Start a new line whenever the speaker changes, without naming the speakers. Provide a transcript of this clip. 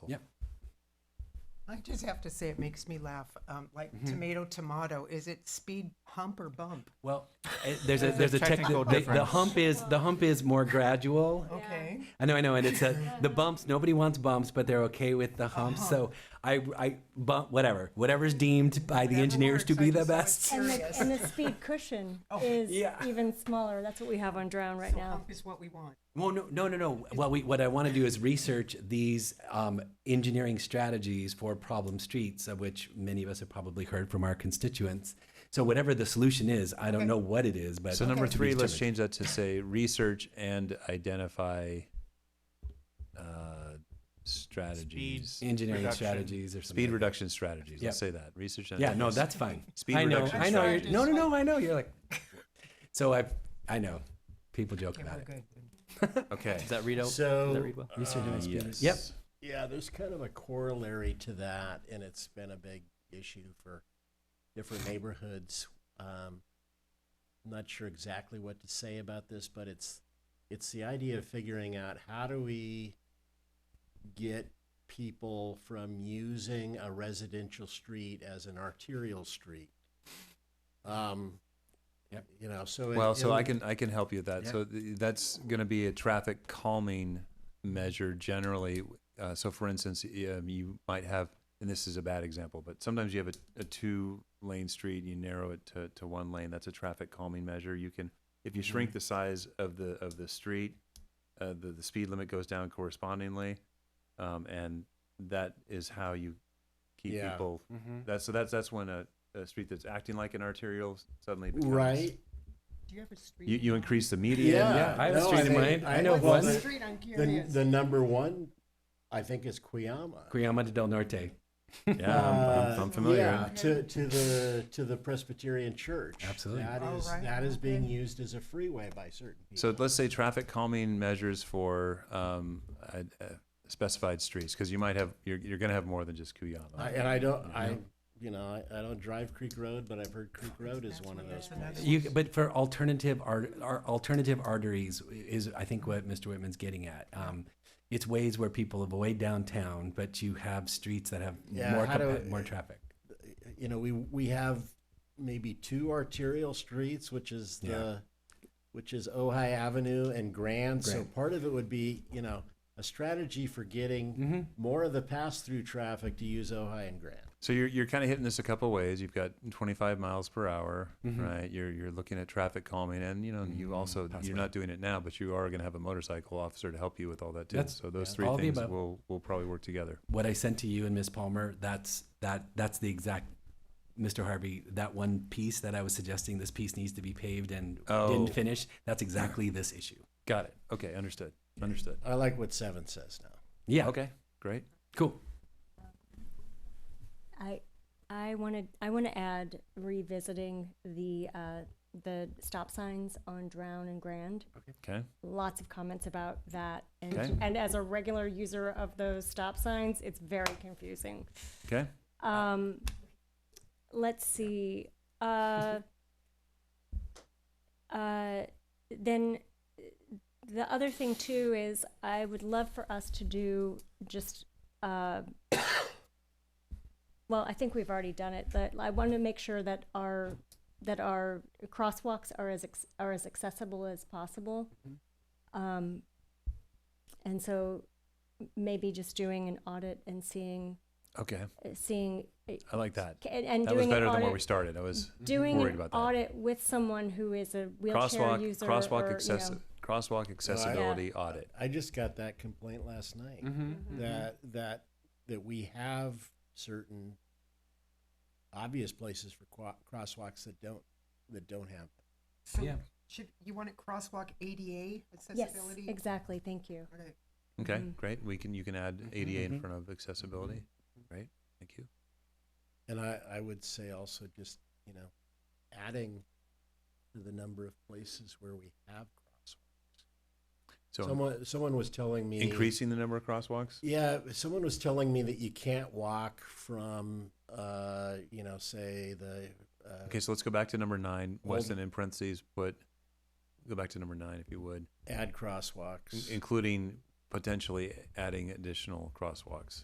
I just have to say, it makes me laugh. Um, like
Mm-hmm.
tomato, tomato. Is it speed hump or bump?
Well, eh, there's a there's a technical
technical
the, the
difference.
hump is the hump is more gradual.
Okay.
I know, I know, and it's a, the bumps. Nobody wants bumps, but they're okay with the
Uh-huh.
humps. So I, I bump whatever, whatever's deemed by the
Whatever
engineers to
works, I
be the
just like
best.
to-
And
Curious. Oh,
the, and the speed cushion is
yeah.
even smaller. That's what we have on Drown right
so
now.
hump is what we want.
Well, no, no, no, no. What we what I want to do is research these um, engineering strategies for problem streets, of which many of us have probably heard from our constituents. So whatever the solution is, I don't know what it is, but
So number
to be
three, let's
determined.
change that to say research and identify uh, strategies.
engineering
reduction.
strategies or something.
Speed
like
reduction strategies. Let's
Yep.
say that. Research
that.
and
Yeah, no,
identify-
that's fine.
Speed
I know,
reduction
I know. You're,
strategies.
no, no, no, I know. You're like, so I, I know. People joke
Okay,
about
we're
it.
good.
Okay.
Does that read out? does that
So, uh,
read well?
Research and speed-
yes.
Yep.
yeah, there's kind of a corollary to that, and it's been a big issue for different neighborhoods. Um, I'm not sure exactly what to say about this, but it's it's the idea of figuring out how do we get people from using a residential street as an arterial street. Um,
Yep.
You know, so it-
Well, so I
it'll-
can I can help you with that.
Yeah.
So th- that's going to be a traffic calming measure generally. Uh, so for instance, um, you might have, and this is a bad example, but sometimes you have a, a two lane street, you narrow it to, to one lane. That's a traffic calming measure. You can, if you
Mm-hmm.
shrink the size of the of the street, uh, the the speed limit goes down correspondingly, um, and that is how you keep
Yeah. Mm-hmm.
people. That's so that's that's when a, a street that's acting like an arterial suddenly becomes
right.
Do you have a street?
you,
in
you
mind?
increase the median.
Yeah. I have a street in
think-
mind. I know
What's
well,
one.
the
the-
street? I'm
The,
curious.
the number one, I think, is Cuyama.
Cuyama del Norte.
Yeah, I'm, I'm,
Uh,
I'm familiar.
Yeah, to, to the to the Presbyterian Church.
Absolutely.
That
Oh,
is
right.
that is being
Okay.
used as a freeway by certain people.
So let's say traffic calming measures for um, uh, uh, specified streets, because you might have you're, you're going to have more than just Cuyama.
I, and I don't I you know I, I don't drive Creek Road, but I've heard Creek Road is
Oh, That's
one of
what it
those
is, and that's
places.
You, but for alternative art, ar- alternative arteries is, I think, what Mr. Whitman's getting at. Um, it's ways where people avoid downtown, but you have streets that have
Yeah,
more
how
compa-
do-
more traffic.
You know we we have maybe two arterial streets, which is
Yeah.
the which is Ojai Avenue and Grand. So
Grand.
part of it would be you know a strategy for getting
Mm-hmm.
more of the pass through traffic to use Ojai and Grand.
So you're, you're kind of hitting this a couple ways. You've got 25 miles per hour,
Mm-hmm.
right? You're you're looking at traffic calming, and you know you also
Possibly.
you're not doing it now, but you are going to have a motorcycle officer to help you with all that too.
That's-
so those
yeah.
three
All the
things
above.
will will probably work together.
What I sent to you and Miss Palmer, that's that that's the exact. Mr. Harvey, that one piece that I was suggesting, this piece needs to be paved and
Oh.
didn't finish. That's exactly this issue.
Got it. Okay, understood. Understood.
I like what Seven says now.
Yeah.
Okay, great.
Cool.
I I wanted I want to add revisiting the uh, the stop signs on Drown and Grand.
Okay.
Lots of comments about that, and
Okay.
and as a regular user of those stop signs, it's very confusing.
Okay.
Um, let's see. Uh, uh, then uh, the other thing too is I would love for us to do just. Uh, well, I think we've already done it, but I want to make sure that our that our crosswalks are as ex- are as accessible as possible. Um, and so maybe just doing an audit and seeing
Okay.
seeing and,
I like that.
and
That was
doing
better
an
than
audit,
where we started. I was
doing
worried
an
about that.
audit with someone who is a wheelchair
crosswalk
user
crosswalk
or, you
accessi-
know,
crosswalk accessibility audit.
I just got that complaint last night
Mm-hmm.
that that that we have certain obvious places for qua- crosswalks that don't that don't have.
So
Yeah.
should you want it crosswalk ADA
yes
accessibility?
exactly thank you
Okay.
Okay,
Mhm.
great. We can you can add ADA in front of accessibility. Right. Thank you.
And I I would say also just you know adding to the number of places where we have crosswalks.
So
someone someone was telling me
increasing the number of crosswalks.
Yeah, someone was telling me that you can't walk from uh you know say the uh,
Okay, so let's go back to number nine.
Well-
Weston in parentheses put. Go back to number nine if you would,
add
in-
crosswalks.
including potentially adding additional crosswalks.